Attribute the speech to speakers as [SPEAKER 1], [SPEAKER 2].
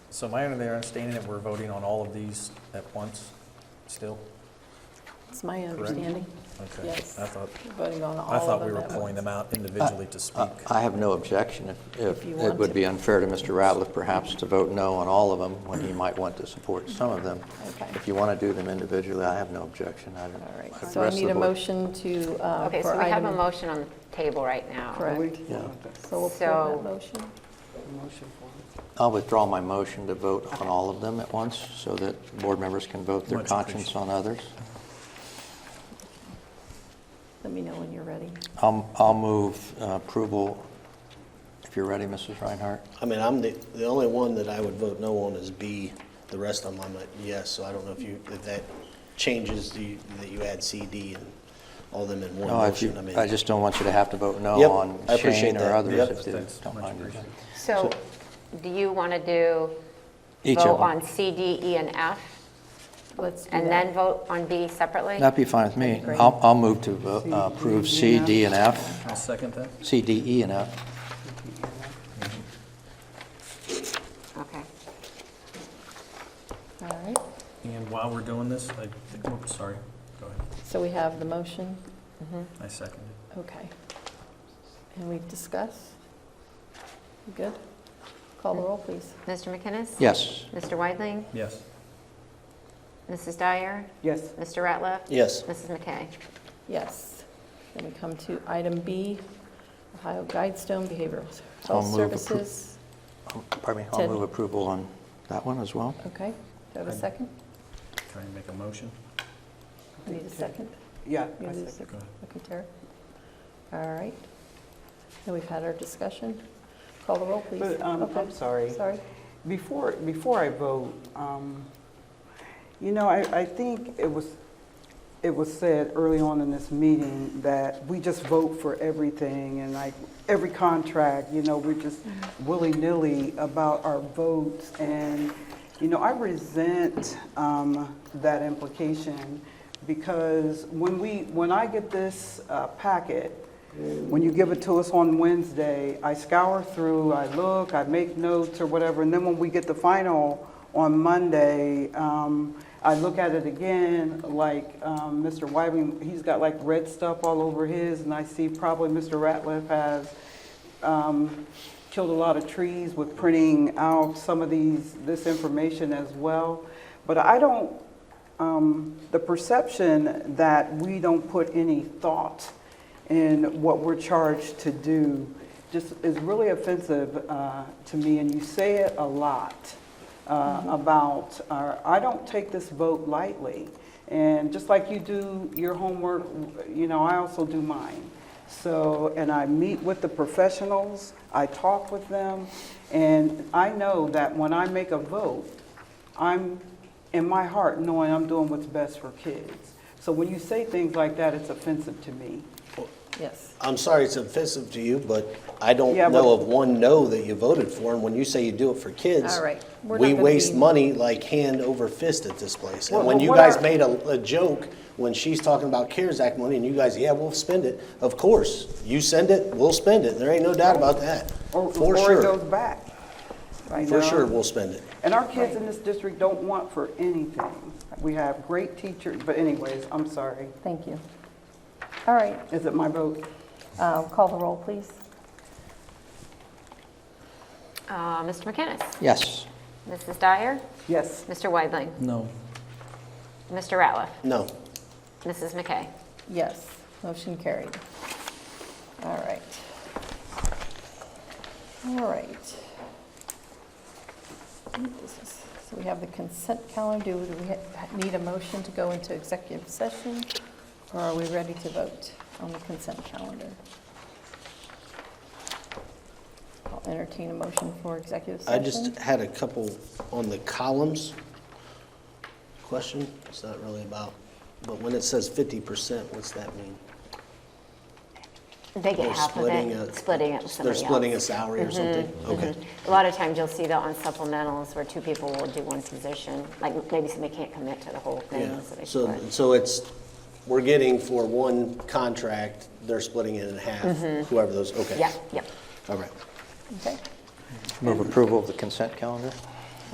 [SPEAKER 1] So my understanding that we're voting on all of these at once still?
[SPEAKER 2] It's my
[SPEAKER 1] Correct.
[SPEAKER 2] understanding.
[SPEAKER 1] Okay.
[SPEAKER 2] Yes.
[SPEAKER 1] I thought,
[SPEAKER 2] We're Voting on all
[SPEAKER 1] I
[SPEAKER 2] of
[SPEAKER 1] thought we
[SPEAKER 2] them
[SPEAKER 1] were
[SPEAKER 2] at
[SPEAKER 1] pulling
[SPEAKER 2] once.
[SPEAKER 1] them out individually to speak.
[SPEAKER 3] I have no objection if-
[SPEAKER 2] If
[SPEAKER 3] if,
[SPEAKER 2] you
[SPEAKER 3] it
[SPEAKER 2] want
[SPEAKER 3] would
[SPEAKER 2] to.
[SPEAKER 3] be unfair to Mr. Ratliff perhaps to vote no on all of them when he might want to support some of them.
[SPEAKER 2] Okay.
[SPEAKER 3] If you want to do them individually, I have no objection. I don't-
[SPEAKER 2] All right,
[SPEAKER 3] the
[SPEAKER 2] so I
[SPEAKER 3] rest of
[SPEAKER 2] need
[SPEAKER 3] the
[SPEAKER 2] a
[SPEAKER 3] board-
[SPEAKER 2] motion to, uh,
[SPEAKER 4] Okay,
[SPEAKER 2] for
[SPEAKER 4] so we have a
[SPEAKER 2] item-
[SPEAKER 4] motion on the table right now.
[SPEAKER 2] Correct.
[SPEAKER 3] Yeah.
[SPEAKER 2] So we'll pull
[SPEAKER 4] So-
[SPEAKER 2] that motion.
[SPEAKER 3] I'll withdraw my motion to vote on all of them at once so that board members can vote their
[SPEAKER 1] Much
[SPEAKER 3] conscience on others.
[SPEAKER 2] Let me know when you're ready.
[SPEAKER 3] I'll Um, I'll move uh, approval, if you're ready, Mrs. Reinhardt.
[SPEAKER 5] I mean, I'm the, the only one that I would vote no on is B. The rest of them, I'm like, yes, so I don't know if you, if that changes, the- that you add C, D, and all them in one
[SPEAKER 3] No, if
[SPEAKER 5] motion. I
[SPEAKER 3] you-
[SPEAKER 5] mean,
[SPEAKER 3] I just don't want you to have to vote no
[SPEAKER 5] Yep,
[SPEAKER 3] on
[SPEAKER 5] I appreciate
[SPEAKER 3] Shane or
[SPEAKER 5] that.
[SPEAKER 3] others
[SPEAKER 5] Yep.
[SPEAKER 3] if they
[SPEAKER 1] That's
[SPEAKER 3] don't
[SPEAKER 1] much
[SPEAKER 3] mind.
[SPEAKER 1] appreciated.
[SPEAKER 4] So do you want to do,
[SPEAKER 3] Each of
[SPEAKER 4] vote
[SPEAKER 3] them.
[SPEAKER 4] on C, D, E, and F,
[SPEAKER 2] Let's do
[SPEAKER 4] and
[SPEAKER 2] that.
[SPEAKER 4] then vote on B separately?
[SPEAKER 3] That'd be fine with me.
[SPEAKER 2] Great.
[SPEAKER 3] I'll I'll move to vo- uh, approve C, D, and F,
[SPEAKER 1] I'll second that.
[SPEAKER 3] C, D, E, and F.
[SPEAKER 4] Okay.
[SPEAKER 2] All right,
[SPEAKER 1] And while we're doing this, I, think- oh, sorry, go ahead.
[SPEAKER 2] so we have the motion,
[SPEAKER 4] Mm-hmm.
[SPEAKER 1] I second it.
[SPEAKER 2] okay. And we discuss? You Good? Call the roll, please.
[SPEAKER 4] Mr. McInnes?
[SPEAKER 3] Yes.
[SPEAKER 4] Mr. Weidling?
[SPEAKER 1] Yes.
[SPEAKER 4] Mrs. Dyer?
[SPEAKER 6] Yes,
[SPEAKER 4] Mr. Ratliff?
[SPEAKER 5] Yes,
[SPEAKER 4] Mrs. McKay?
[SPEAKER 2] Yes. Then we come to item B, Ohio Guidestone Behavioral
[SPEAKER 3] I'll
[SPEAKER 2] Health
[SPEAKER 3] move appro-
[SPEAKER 2] Services.
[SPEAKER 3] Pardon me, I'll
[SPEAKER 2] Ted.
[SPEAKER 3] move approval on that one as well.
[SPEAKER 2] Okay, do I have a
[SPEAKER 1] I'd-
[SPEAKER 2] second?
[SPEAKER 1] Trying to make a motion.
[SPEAKER 2] I need a second.
[SPEAKER 6] yeah.
[SPEAKER 2] You
[SPEAKER 6] I
[SPEAKER 2] need a
[SPEAKER 6] second.
[SPEAKER 2] second. Okay, Tara. All right. Now we've had our discussion. Call the roll, please.
[SPEAKER 6] But, um,
[SPEAKER 2] Okay.
[SPEAKER 6] I'm sorry.
[SPEAKER 2] Sorry.
[SPEAKER 6] Before, before I vote, um, you know, I, I think it was, it was said early on in this meeting that we just vote for everything and like every contract, you know, we're just willy-nilly about our votes. And, you know, I resent um, that implication because when we, when I get this uh, packet, When you give it to us on Wednesday, I scour through, I look, I make notes or whatever, and then when we get the final on Monday, um, I look at it again, like um, Mr. Wybing, he's got like red stuff all over his, and I see probably Mr. Ratliff has um, killed a lot of trees with printing out some of these, this information as well. But I don't, um, the perception that we don't put any thought in what we're charged to do just is really offensive uh, to me, and you say it a lot uh, about, our- I don't take this vote lightly. And just like you do your homework, you know, I also do mine. So, and I meet with the professionals, I talk with them, and I know that when I make a vote, I'm in my heart knowing I'm doing what's best for kids. So when you say things like that, it's offensive to me.
[SPEAKER 2] Yes.
[SPEAKER 5] I'm sorry it's offensive to you, but I don't
[SPEAKER 6] Yeah,
[SPEAKER 5] know
[SPEAKER 6] but-
[SPEAKER 5] of one no that you voted for, and when you say you do it for kids,
[SPEAKER 2] All right, we're not
[SPEAKER 5] we
[SPEAKER 2] gonna
[SPEAKER 5] waste
[SPEAKER 2] be-
[SPEAKER 5] money like hand over fist at this place. And
[SPEAKER 6] Well,
[SPEAKER 5] when
[SPEAKER 6] well,
[SPEAKER 5] you
[SPEAKER 6] what
[SPEAKER 5] guys
[SPEAKER 6] are-
[SPEAKER 5] made a, a joke, when she's talking about CARES Act money, and you guys, yeah, we'll spend it, of course, you send it, we'll spend it, there ain't no doubt about that,
[SPEAKER 6] Or, or
[SPEAKER 5] for
[SPEAKER 6] it goes
[SPEAKER 5] sure,
[SPEAKER 6] back. you
[SPEAKER 5] for
[SPEAKER 6] know?
[SPEAKER 5] sure, we'll spend it.
[SPEAKER 6] And our kids in this district don't want for anything. We have great teachers, but anyways, I'm sorry.
[SPEAKER 2] Thank you. All right,
[SPEAKER 6] Is it my vote?
[SPEAKER 2] um, call the roll, please.
[SPEAKER 4] Uh, Mr. McInnes?
[SPEAKER 3] Yes.
[SPEAKER 4] Mrs. Dyer?
[SPEAKER 6] Yes.
[SPEAKER 4] Mr. Weidling?
[SPEAKER 1] No.
[SPEAKER 4] Mr. Ratliff?
[SPEAKER 5] No,
[SPEAKER 4] Mrs. McKay?
[SPEAKER 2] Yes, motion carried. All right. All right. New business. So we have the consent calendar. Do we ha- need a motion to go into executive session? Or are we ready to vote on the consent calendar? I'll entertain a motion for executive
[SPEAKER 5] I
[SPEAKER 2] session.
[SPEAKER 5] just had a couple on the columns. Question, it's not really about, but when it says fifty percent, what's that mean?
[SPEAKER 4] They get
[SPEAKER 5] They're
[SPEAKER 4] half of
[SPEAKER 5] splitting a-
[SPEAKER 4] it, splitting it with somebody
[SPEAKER 5] They're
[SPEAKER 4] else. Mm-hmm.
[SPEAKER 5] splitting a salary or something? Okay.
[SPEAKER 4] A lot of times you'll see that on supplementals where two people will do one position, like maybe somebody can't commit to the whole
[SPEAKER 5] Yeah,
[SPEAKER 4] thing. they
[SPEAKER 5] so,
[SPEAKER 4] split.
[SPEAKER 5] so it's, we're getting for one contract, they're splitting it in half, whoever those, okay.
[SPEAKER 4] Mm-hmm. Yeah, yeah.
[SPEAKER 5] All right.
[SPEAKER 2] Okay.
[SPEAKER 3] Move approval of the consent calendar?